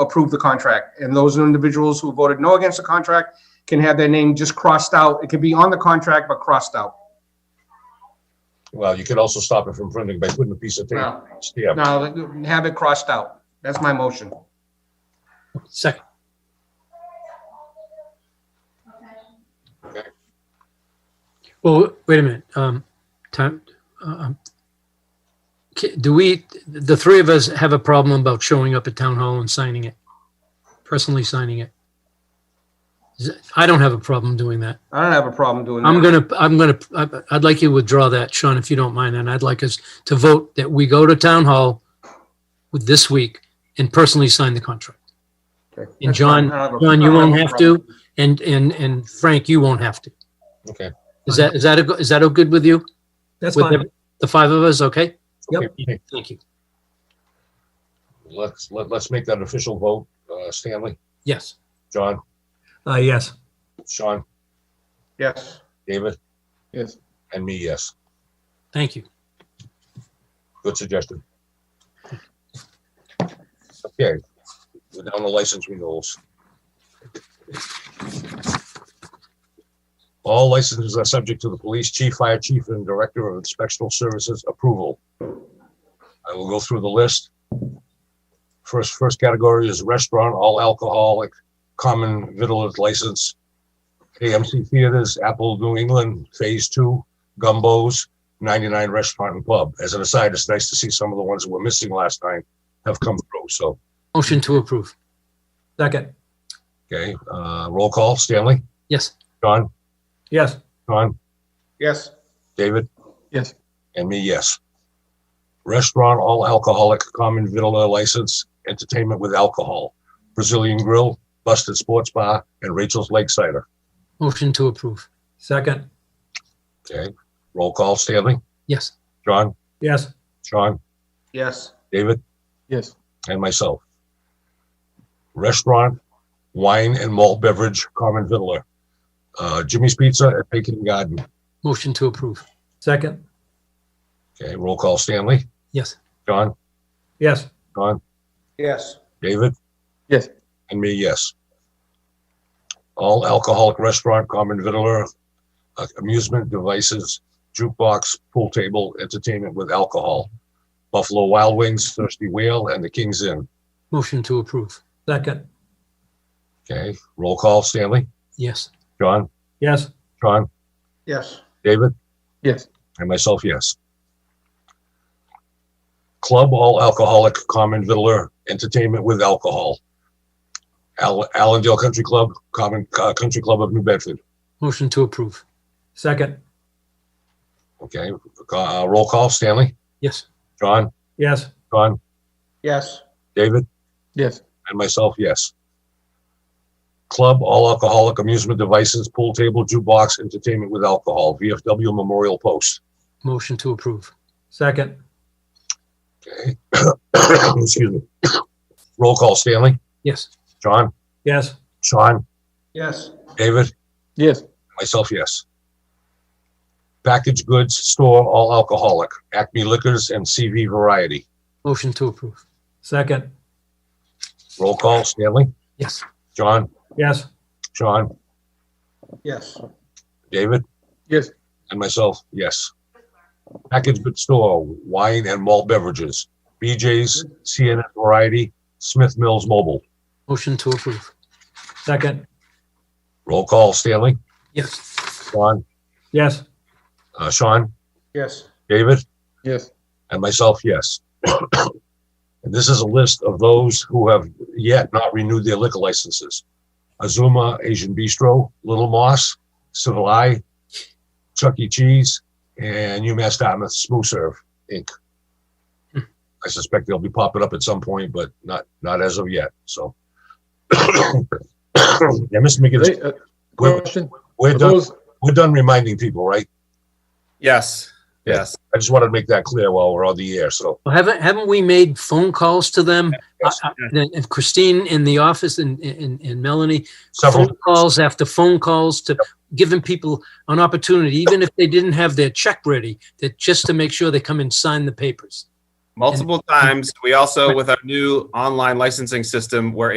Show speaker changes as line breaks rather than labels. approve the contract. And those individuals who voted no against the contract can have their name just crossed out. It can be on the contract, but crossed out.
Well, you could also stop it from printing by putting a piece of tape.
No,
Yeah,
no, have it crossed out. That's my motion.
Second, well, wait a minute, um, time, um, ca- do we, the three of us have a problem about showing up at town hall and signing it? Personally signing it? Is it- I don't have a problem doing that.
I don't have a problem doing that.
I'm gonna, I'm gonna, I- I'd like you to withdraw that, Sean, if you don't mind, and I'd like us to vote that we go to town hall with this week and personally sign the contract.
Okay.
And
That's fine.
John-
I don't have a-
John,
I
you
don't
won't
a
have
problem.
to, and, and, and Frank, you won't have to.
okay.
Is that, is that, a go- is that all good with you?
That's
With
fine.
the- The five of us, okay?
Yep.
Okay,
Thank you.
Let's, let, let's make that official vote. Uh, Stanley,
Yes.
John,
Uh, yes.
Sean,
Yes.
David,
Yes.
and me, yes.
Thank you.
Good suggestion. Okay, we're down to license renewals. All licenses are subject to the police chief, fire chief, and director of inspectional services approval. I will go through the list. First, first category is restaurant, all alcoholic, common vittles license. AMC Theaters, Apple New England, Phase Two, Gumbo's, 99 Restaurant and Pub. As an aside, it's nice to see some of the ones that were missing last time have come through. So,
Motion to approve.
Second.
okay, uh, roll call, Stanley,
Yes.
John,
Yes.
John,
Yes.
David,
Yes.
and me, yes. Restaurant, all alcoholic, common villa license, entertainment with alcohol, Brazilian Grill, Busted Sports Bar, and Rachel's Lake Cider.
Motion to approve.
Second.
Okay, roll call, Stanley,
Yes.
John,
Yes.
Sean,
Yes.
David,
Yes.
and myself. Restaurant, wine and malt beverage, common Vittler. Uh, Jimmy's Pizza at Bacon Garden.
Motion to approve.
Second.
Okay, roll call Stanley,
Yes.
John,
Yes.
John,
Yes.
David?
Yes.
And me, yes. All alcoholic restaurant, common Vittler, uh, amusement devices, jukebox, pool table, entertainment with alcohol. Buffalo Wild Wings, Thirsty Whale, and the King's Inn.
Motion to approve.
Second.
Okay, roll call Stanley,
Yes.
John,
Yes.
John,
Yes.
David?
Yes.
And myself, yes. Club all alcoholic common vittler entertainment with alcohol. Al- Allendale Country Club, Common uh, Country Club of New Bedford.
Motion to approve.
Second.
Okay, uh, roll call. Stanley,
Yes.
John,
Yes.
John,
Yes.
David,
Yes.
and myself, yes. Club all alcoholic amusement devices, pool table, jukebox, entertainment with alcohol. VFW Memorial Post.
Motion to approve.
Second.
Okay, excuse me. Roll call. Stanley,
Yes.
John,
Yes.
Sean,
Yes.
David,
Yes.
Myself, yes. Packaged goods store, all alcoholic, Acme Liquors and CV Variety.
Motion to approve.
Second.
Roll call, Stanley,
Yes.
John,
Yes.
Sean,
Yes.
David?
Yes.
And myself, yes. Packaged goods store, wine and malt beverages, BJ's, CNN Variety, Smith Mills Mobile.
Motion to approve.
Second.
Roll call, Stanley,
Yes.
John,
Yes.
uh, Sean,
Yes.
David?
Yes.
And myself, yes. And this is a list of those who have yet not renewed their liquor licenses. Azuma Asian Bistro, Little Moss, Civil Eye, Chuck E. Cheese, and UMass Dartmouth Smooth Serve Inc. I suspect they'll be popping up at some point, but not, not as of yet, so. Yeah, Mr. McGinnis,
They- uh,
we're,
Question,
we're
are
done,
those,
we're done reminding people, right?
Yes,
Yeah.
yes.
I just wanted to make that clear while we're on the air, so.
Well, haven't, haven't we made phone calls to them? I-
yes,
I- And Christine in the office and, and, and Melanie,
Several,
phone calls after phone calls to giving people an opportunity, even if they didn't have their check ready, that just to make sure they come and sign the papers.
multiple times. We also, with our new online licensing system, were